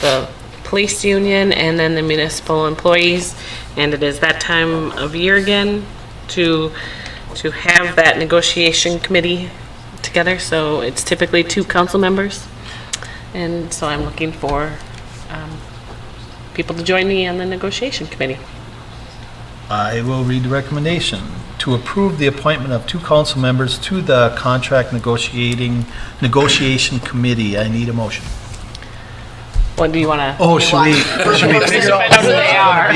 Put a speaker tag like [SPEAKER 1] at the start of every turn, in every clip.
[SPEAKER 1] the police union and then the municipal employees. And it is that time of year again to, to have that negotiation committee together. So it's typically two council members. And so I'm looking for um, people to join me on the negotiation committee.
[SPEAKER 2] I will read the recommendation. To approve the appointment of two council members to the Contract Negotiating, Negotiation Committee. I need a motion.
[SPEAKER 1] What do you want to?
[SPEAKER 2] Oh, should we, should we figure out who they are?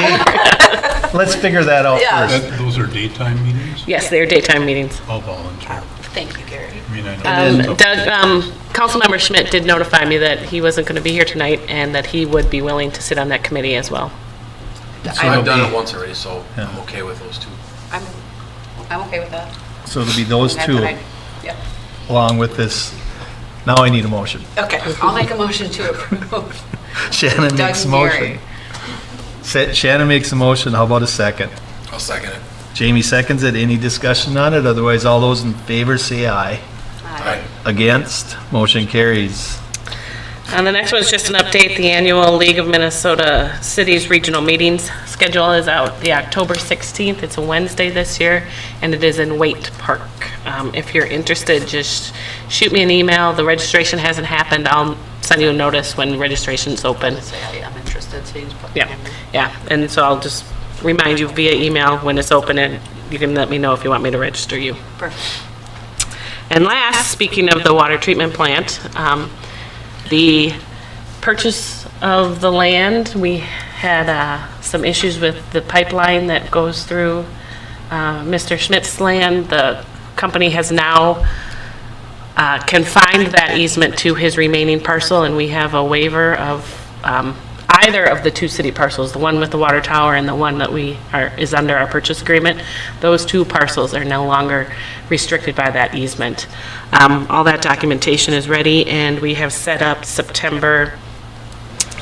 [SPEAKER 2] Let's figure that out
[SPEAKER 3] Yeah.
[SPEAKER 2] first.
[SPEAKER 4] That, those are daytime meetings?
[SPEAKER 1] Yes, they're daytime meetings.
[SPEAKER 4] All volunteer.
[SPEAKER 3] Thank you, Gary.
[SPEAKER 4] I mean, I
[SPEAKER 1] Um,
[SPEAKER 4] know.
[SPEAKER 1] Doug, um, Councilmember Schmidt did notify me that he wasn't going to be here tonight and that he would be willing to sit on that committee as well.
[SPEAKER 5] So I've done
[SPEAKER 2] Okay.
[SPEAKER 5] it once already, so I'm
[SPEAKER 2] Yeah.
[SPEAKER 5] okay with those two.
[SPEAKER 3] I'm, I'm okay with that.
[SPEAKER 2] So it'll be those
[SPEAKER 3] That's
[SPEAKER 2] two
[SPEAKER 3] what I- Yep.
[SPEAKER 2] along with this. Now I need a motion.
[SPEAKER 3] Okay, I'll make a motion to approve.
[SPEAKER 2] Shannon
[SPEAKER 3] Doug
[SPEAKER 2] makes a
[SPEAKER 3] and
[SPEAKER 2] motion.
[SPEAKER 3] Gary.
[SPEAKER 2] Sa- Shannon makes a motion. How about a second?
[SPEAKER 5] I'll second it.
[SPEAKER 2] Jamie seconds it. Any discussion on it? Otherwise, all those in favor say aye.
[SPEAKER 5] Aye.
[SPEAKER 2] Against? Motion carries.
[SPEAKER 1] And the next one's just an update, the annual League of Minnesota Cities Regional Meetings schedule is out the October 16th. It's a Wednesday this year, and it is in Waite Park. Um, If you're interested, just shoot me an email. The registration hasn't happened. I'll send you a notice when registration's open.
[SPEAKER 3] Say, I- I'm interested, so you just put.
[SPEAKER 1] Yeah, yeah, and so I'll just remind you via email when it's open, and you can let me know if you want me to register you.
[SPEAKER 3] Perfect.
[SPEAKER 1] And last, speaking of the water treatment plant, um, the purchase of the land, we had uh, some issues with the pipeline that goes through uh, Mr. Schmidt's land. The company has now uh, confined that easement to his remaining parcel, and we have a waiver of um, either of the two city parcels, the one with the water tower and the one that we are, is under our purchase agreement. Those two parcels are no longer restricted by that easement. Um, All that documentation is ready, and we have set up September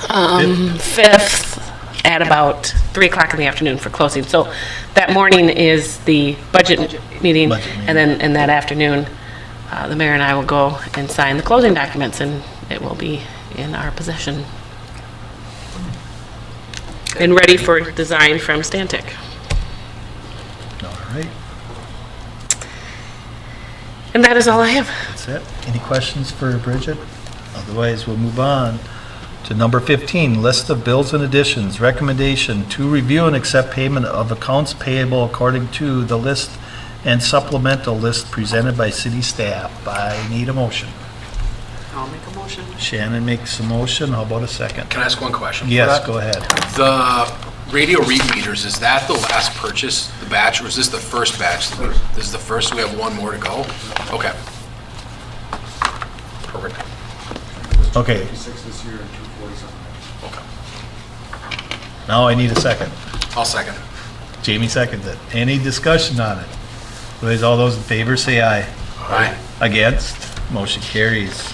[SPEAKER 1] um, 5th at about 3 o'clock in the afternoon for closing. So that morning is the budget meeting,
[SPEAKER 2] Budget meeting.
[SPEAKER 1] and then, and that afternoon, uh, the mayor and I will go and sign the closing documents, and it will be in our possession. And ready for design from Stantec.
[SPEAKER 2] All right,
[SPEAKER 1] And that is all I have.
[SPEAKER 2] that's it. Any questions for Bridget? Otherwise, we'll move on to number 15, list of bills and additions. Recommendation to review and accept payment of accounts payable according to the list and supplemental list presented by city staff. I need a motion.
[SPEAKER 3] I'll make a motion.
[SPEAKER 2] Shannon makes a motion. How about a second?
[SPEAKER 5] Can I ask one question? for
[SPEAKER 2] Yes,
[SPEAKER 5] that?
[SPEAKER 2] go ahead.
[SPEAKER 5] The radio read meters, is that the last purchase, the batch, or is this the first batch? This is the first, we have one more to go? Okay. Perfect.
[SPEAKER 2] Okay,
[SPEAKER 6] 56 this year and 240 something.
[SPEAKER 5] Okay.
[SPEAKER 2] now I need a second.
[SPEAKER 5] I'll second it.
[SPEAKER 2] Jamie seconds it. Any discussion on it? Otherwise, all those in favor say aye.
[SPEAKER 5] Aye.
[SPEAKER 2] Against? Motion carries.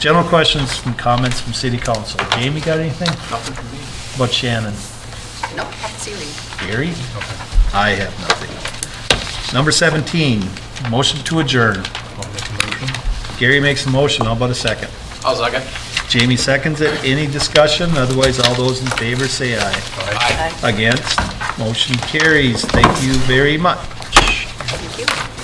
[SPEAKER 2] General questions from comments from city council. Jamie, got anything?
[SPEAKER 5] Nothing for me.
[SPEAKER 2] About Shannon?
[SPEAKER 3] Nope, haven't seen you.
[SPEAKER 2] Gary? I have nothing. Number 17, motion to adjourn.
[SPEAKER 4] I'll make a motion.
[SPEAKER 2] Gary makes a motion, how about a second?
[SPEAKER 5] I'll second.
[SPEAKER 2] Jamie seconds it. Any discussion? Otherwise, all those in favor say aye.
[SPEAKER 5] Aye.
[SPEAKER 2] Against? Motion carries. Thank you very much.